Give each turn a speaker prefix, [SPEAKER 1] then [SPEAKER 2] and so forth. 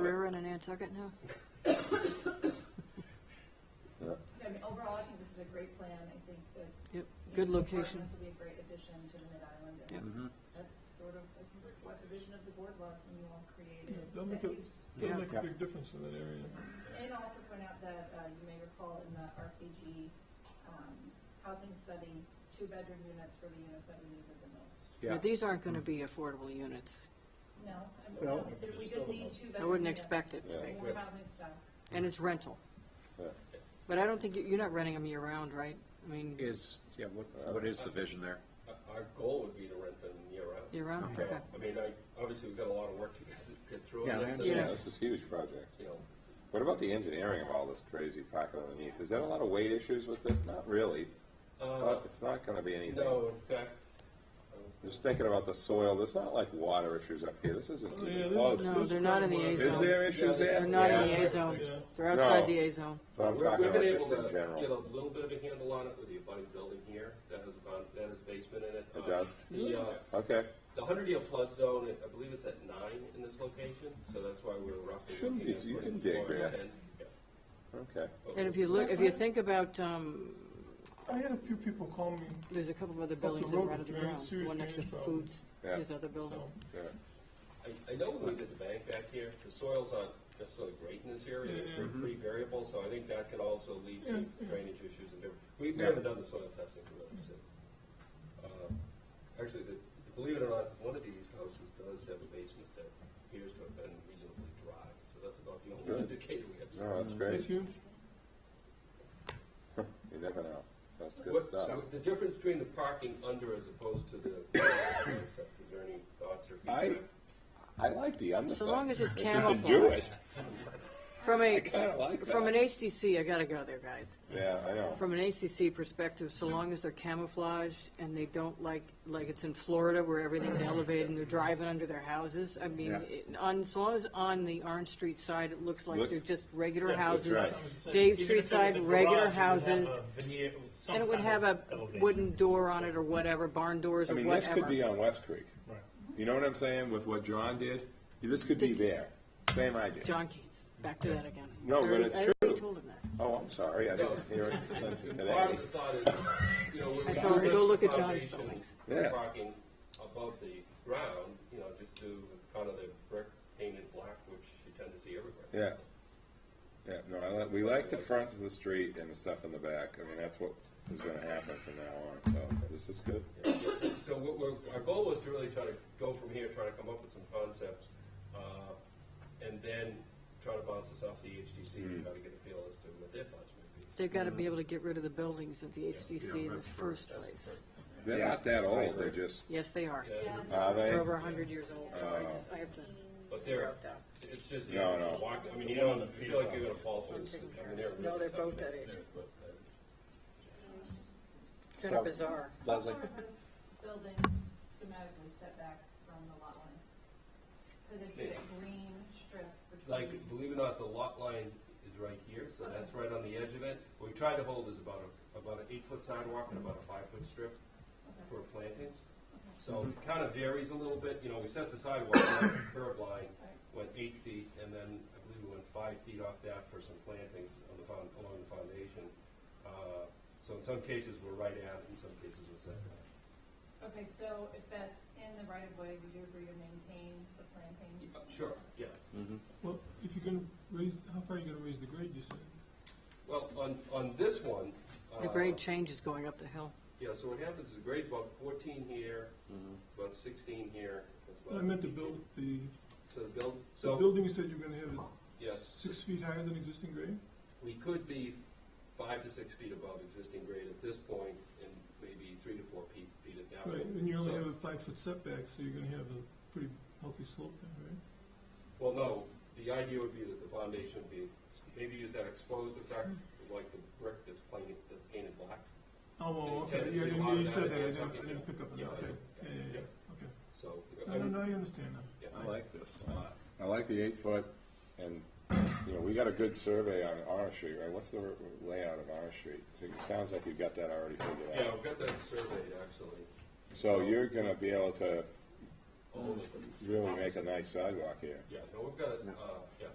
[SPEAKER 1] River and a Nantucket now?
[SPEAKER 2] I mean, overall, I think this is a great plan. I think that.
[SPEAKER 1] Yep,
[SPEAKER 2] you
[SPEAKER 1] good
[SPEAKER 2] know, the
[SPEAKER 1] location.
[SPEAKER 2] apartments will be a great addition to the Mid-Island. and
[SPEAKER 1] Yep.
[SPEAKER 2] That's sort of, I think, what the vision of the board was when you all created
[SPEAKER 3] Yeah, they'll
[SPEAKER 2] that
[SPEAKER 3] make it-
[SPEAKER 2] use.
[SPEAKER 3] It'll
[SPEAKER 1] Yeah.
[SPEAKER 3] make a big difference in that area.
[SPEAKER 2] And also point out that, uh, you may recall in the RPG, um, housing study, two-bedroom units were the units that we needed the most.
[SPEAKER 1] But These aren't going to be affordable units.
[SPEAKER 2] No, I mean,
[SPEAKER 4] No.
[SPEAKER 2] we just need two-bedroom
[SPEAKER 1] I wouldn't
[SPEAKER 2] units,
[SPEAKER 1] expect it to
[SPEAKER 4] Yeah.
[SPEAKER 1] be.
[SPEAKER 2] More housing stuff.
[SPEAKER 1] And it's rental.
[SPEAKER 4] Yeah.
[SPEAKER 1] But I don't think, you- you're not renting them year-round, right? I mean,
[SPEAKER 5] Is, yeah, what, what is the vision there?
[SPEAKER 6] Our goal would be to rent them year round.
[SPEAKER 1] year-round, okay.
[SPEAKER 6] I mean, I, obviously, we've got a lot of work to get, get through
[SPEAKER 5] Yeah, I
[SPEAKER 6] on this. and,
[SPEAKER 1] understand.
[SPEAKER 4] Yeah, this is a huge project.
[SPEAKER 6] You know,
[SPEAKER 4] What about the engineering of all this crazy packet underneath? Is there a lot of weight issues with this? Not really.
[SPEAKER 6] uh,
[SPEAKER 4] But it's not gonna be anything.
[SPEAKER 6] no, in fact,
[SPEAKER 4] Just thinking about the soil, there's not like water issues up here. This isn't
[SPEAKER 3] Oh, yeah,
[SPEAKER 4] even
[SPEAKER 3] this
[SPEAKER 4] close.
[SPEAKER 3] is-
[SPEAKER 1] No, they're not in the A
[SPEAKER 3] Is
[SPEAKER 4] Is
[SPEAKER 1] zone.
[SPEAKER 4] there issues there?
[SPEAKER 1] They're not in
[SPEAKER 4] Yeah.
[SPEAKER 1] the A zone.
[SPEAKER 3] Yeah.
[SPEAKER 1] They're outside
[SPEAKER 4] No.
[SPEAKER 1] the A zone.
[SPEAKER 4] But I'm
[SPEAKER 6] we're-
[SPEAKER 4] talking
[SPEAKER 6] we've
[SPEAKER 4] about
[SPEAKER 6] been
[SPEAKER 4] just
[SPEAKER 6] able to
[SPEAKER 4] in
[SPEAKER 6] get
[SPEAKER 4] general.
[SPEAKER 6] a little bit of a handle on it with the abutting building here, that has a, bon- that has a basement in it.
[SPEAKER 4] It
[SPEAKER 6] Uh,
[SPEAKER 4] does?
[SPEAKER 6] The, uh,
[SPEAKER 4] Okay.
[SPEAKER 6] the hundred-year flood zone, I believe it's at nine in this location, so that's why we're roughly
[SPEAKER 4] Shouldn't
[SPEAKER 6] looking
[SPEAKER 4] be,
[SPEAKER 6] at.
[SPEAKER 4] you
[SPEAKER 6] like
[SPEAKER 4] can dig
[SPEAKER 6] four and
[SPEAKER 4] there.
[SPEAKER 6] 10. Yeah.
[SPEAKER 4] Okay.
[SPEAKER 6] But
[SPEAKER 1] And if you look, if you think about, um,
[SPEAKER 3] I had a few people call me,
[SPEAKER 1] there's a couple of other buildings that
[SPEAKER 3] road,
[SPEAKER 1] are out of the
[SPEAKER 3] drainage,
[SPEAKER 1] ground. The
[SPEAKER 3] sewage
[SPEAKER 1] one next to
[SPEAKER 3] drainage problem.
[SPEAKER 1] Foods,
[SPEAKER 4] Yeah.
[SPEAKER 1] there's other building.
[SPEAKER 3] so,
[SPEAKER 4] Yeah.
[SPEAKER 6] I, I know when we did the bank back here, the soils aren't necessarily great in this area,
[SPEAKER 3] Yeah.
[SPEAKER 6] they're
[SPEAKER 4] Mm-hmm.
[SPEAKER 6] pretty variable, so I think that could also lead to
[SPEAKER 3] Yeah.
[SPEAKER 6] drainage issues and different, we, we
[SPEAKER 4] Yeah.
[SPEAKER 6] haven't done the soil testing for those, so. Uh, Actually, the, believe it or not, one of these houses does have a basement that appears to have been reasonably dry, so that's about the only
[SPEAKER 4] Good.
[SPEAKER 6] indicator we have.
[SPEAKER 4] No, that's
[SPEAKER 3] that's
[SPEAKER 4] great. You
[SPEAKER 3] huge.
[SPEAKER 4] never know. That's good
[SPEAKER 6] What,
[SPEAKER 4] stuff.
[SPEAKER 6] so the difference between the parking under as opposed to the, concept, is there any thoughts or
[SPEAKER 4] I,
[SPEAKER 6] feedback?
[SPEAKER 4] I like the undercut.
[SPEAKER 1] So long as it's
[SPEAKER 4] If you can do it.
[SPEAKER 1] camouflaged. From a,
[SPEAKER 4] kinda like
[SPEAKER 1] from an
[SPEAKER 4] that.
[SPEAKER 1] HTC, I gotta go there, guys.
[SPEAKER 4] Yeah, I know.
[SPEAKER 1] From an HCC perspective, so long as they're camouflaged and they don't like, like it's in Florida where everything's elevated and they're driving under their houses, I mean,
[SPEAKER 5] Yeah.
[SPEAKER 1] it- on, so long as on the Orange Street side, it looks like
[SPEAKER 4] Look-
[SPEAKER 1] they're just regular
[SPEAKER 7] Yeah, that's
[SPEAKER 1] houses.
[SPEAKER 4] right.
[SPEAKER 1] Dave
[SPEAKER 7] Even if
[SPEAKER 1] Street
[SPEAKER 7] it was
[SPEAKER 1] side,
[SPEAKER 7] a garage,
[SPEAKER 1] regular
[SPEAKER 7] it would have
[SPEAKER 1] houses,
[SPEAKER 7] a veneer- some
[SPEAKER 1] And it would
[SPEAKER 7] kind
[SPEAKER 1] have a
[SPEAKER 7] of elevation.
[SPEAKER 1] wooden door on it or whatever, barn doors
[SPEAKER 4] I
[SPEAKER 1] or
[SPEAKER 4] mean,
[SPEAKER 1] whatever.
[SPEAKER 4] this could be on West Creek.
[SPEAKER 7] Right.
[SPEAKER 4] You know what I'm saying with what John did? This could be
[SPEAKER 1] It's-
[SPEAKER 4] there. Same idea.
[SPEAKER 1] John Keats, back to that again.
[SPEAKER 4] No,
[SPEAKER 1] I
[SPEAKER 4] but
[SPEAKER 1] already-
[SPEAKER 4] it's
[SPEAKER 1] I already
[SPEAKER 4] true.
[SPEAKER 1] told him that.
[SPEAKER 4] Oh, I'm sorry. I didn't hear it since
[SPEAKER 6] Part
[SPEAKER 4] today.
[SPEAKER 6] of the thought is, you know, we're.
[SPEAKER 1] I told her, "Go look at John's
[SPEAKER 6] foundation,
[SPEAKER 1] buildings."
[SPEAKER 4] Yeah.
[SPEAKER 6] Parking above the ground, you know, just do kind of the brick painted black, which you tend to see everywhere.
[SPEAKER 4] Yeah. Yeah, no, I like, we like the front of the street and the stuff in the back. I mean, that's what is gonna happen from now on, so this is good.
[SPEAKER 6] So what we're, our goal was to really try to go from here, try to come up with some concepts, uh, and then try to bounce this off the HTC
[SPEAKER 4] Mm-hmm.
[SPEAKER 6] and try to get a feel as to what their thoughts would be.
[SPEAKER 1] They've got to be able to get rid of the buildings at the HDC in the first place.
[SPEAKER 4] They're not that old, they're just,
[SPEAKER 1] Yes, they are.
[SPEAKER 6] Yeah,
[SPEAKER 4] are
[SPEAKER 1] They're
[SPEAKER 4] they?
[SPEAKER 1] over a hundred years old, so
[SPEAKER 4] Uh,
[SPEAKER 1] I just, I have to
[SPEAKER 6] But
[SPEAKER 1] figure
[SPEAKER 6] they're,
[SPEAKER 1] out that.
[SPEAKER 6] it's just, you
[SPEAKER 4] No, no.
[SPEAKER 6] walk, I mean, you don't feel like you're gonna fall through this. I mean, they're
[SPEAKER 1] No,
[SPEAKER 6] really
[SPEAKER 1] they're
[SPEAKER 6] tough.
[SPEAKER 1] both that age.
[SPEAKER 6] But, uh,
[SPEAKER 1] Kind of bizarre.
[SPEAKER 5] Leslie?
[SPEAKER 2] Some of the Buildings schematically set back from the lot line. Because it's that green strip
[SPEAKER 6] Like,
[SPEAKER 2] between.
[SPEAKER 6] believe it or not, the lot line is right here, so that's right on the edge of it. What we tried to hold is about a, about an eight-foot sidewalk and about a five-foot strip for plantings. So it kind of varies a little bit, you know, we set the sidewalk, line, the curb line, went eight feet, and then I believe we went five feet off that for some plantings on the found, along the foundation. Uh, So in some cases, we're right at, it, in some cases, we're set back.
[SPEAKER 2] Okay, so if that's in the right of way, would you agree to maintain the plantings?
[SPEAKER 6] Uh, Sure, yeah.
[SPEAKER 3] Well, if you're gonna raise, how far are you gonna raise the grade, you said?
[SPEAKER 6] Well, on, on this one.
[SPEAKER 1] The
[SPEAKER 6] uh,
[SPEAKER 1] grade change is going up the hill.
[SPEAKER 6] Yeah, so what happens is the grade's about fourteen here, about sixteen here. that's about
[SPEAKER 3] I meant to
[SPEAKER 6] 18.
[SPEAKER 3] build the,
[SPEAKER 6] So the build,
[SPEAKER 3] the
[SPEAKER 6] so,
[SPEAKER 3] building you said you're gonna have it
[SPEAKER 6] yes,
[SPEAKER 3] six feet higher than existing grade?
[SPEAKER 6] we could be five to six feet above existing grade at this point, and maybe three to four feet, feet at that
[SPEAKER 3] Right,
[SPEAKER 6] point.
[SPEAKER 3] and you only
[SPEAKER 6] So-
[SPEAKER 3] have a five-foot setback, so you're gonna have a pretty healthy slope there, right?
[SPEAKER 6] Well, no, the idea would be that the foundation would be, maybe use that exposed effect, like the brick that's painted, that's painted black.
[SPEAKER 3] Oh,
[SPEAKER 6] And you
[SPEAKER 3] well, okay,
[SPEAKER 6] tend to
[SPEAKER 3] yeah,
[SPEAKER 6] see a
[SPEAKER 3] you
[SPEAKER 6] lot
[SPEAKER 3] you
[SPEAKER 6] of
[SPEAKER 3] said
[SPEAKER 6] that
[SPEAKER 3] that, I
[SPEAKER 6] against
[SPEAKER 3] didn't, I
[SPEAKER 6] something,
[SPEAKER 3] didn't pick up on
[SPEAKER 6] yeah,
[SPEAKER 3] that, okay,
[SPEAKER 6] yeah,
[SPEAKER 3] yeah, yeah,
[SPEAKER 6] yeah.
[SPEAKER 3] yeah, okay.
[SPEAKER 6] So. I
[SPEAKER 3] No, no,
[SPEAKER 6] would-
[SPEAKER 3] no, I understand now.
[SPEAKER 6] yeah.
[SPEAKER 4] I like this a lot. I like the eight foot, and, you know, we got a good survey on Orange Street, right? What's the layout of Orange Street? It sounds like you've got that already figured
[SPEAKER 6] Yeah,
[SPEAKER 4] out.
[SPEAKER 6] we've got that surveyed, actually.
[SPEAKER 4] So you're gonna be able to
[SPEAKER 6] All of it.
[SPEAKER 4] really make a nice sidewalk here.
[SPEAKER 6] Yeah, no, we've got, it, uh, yeah,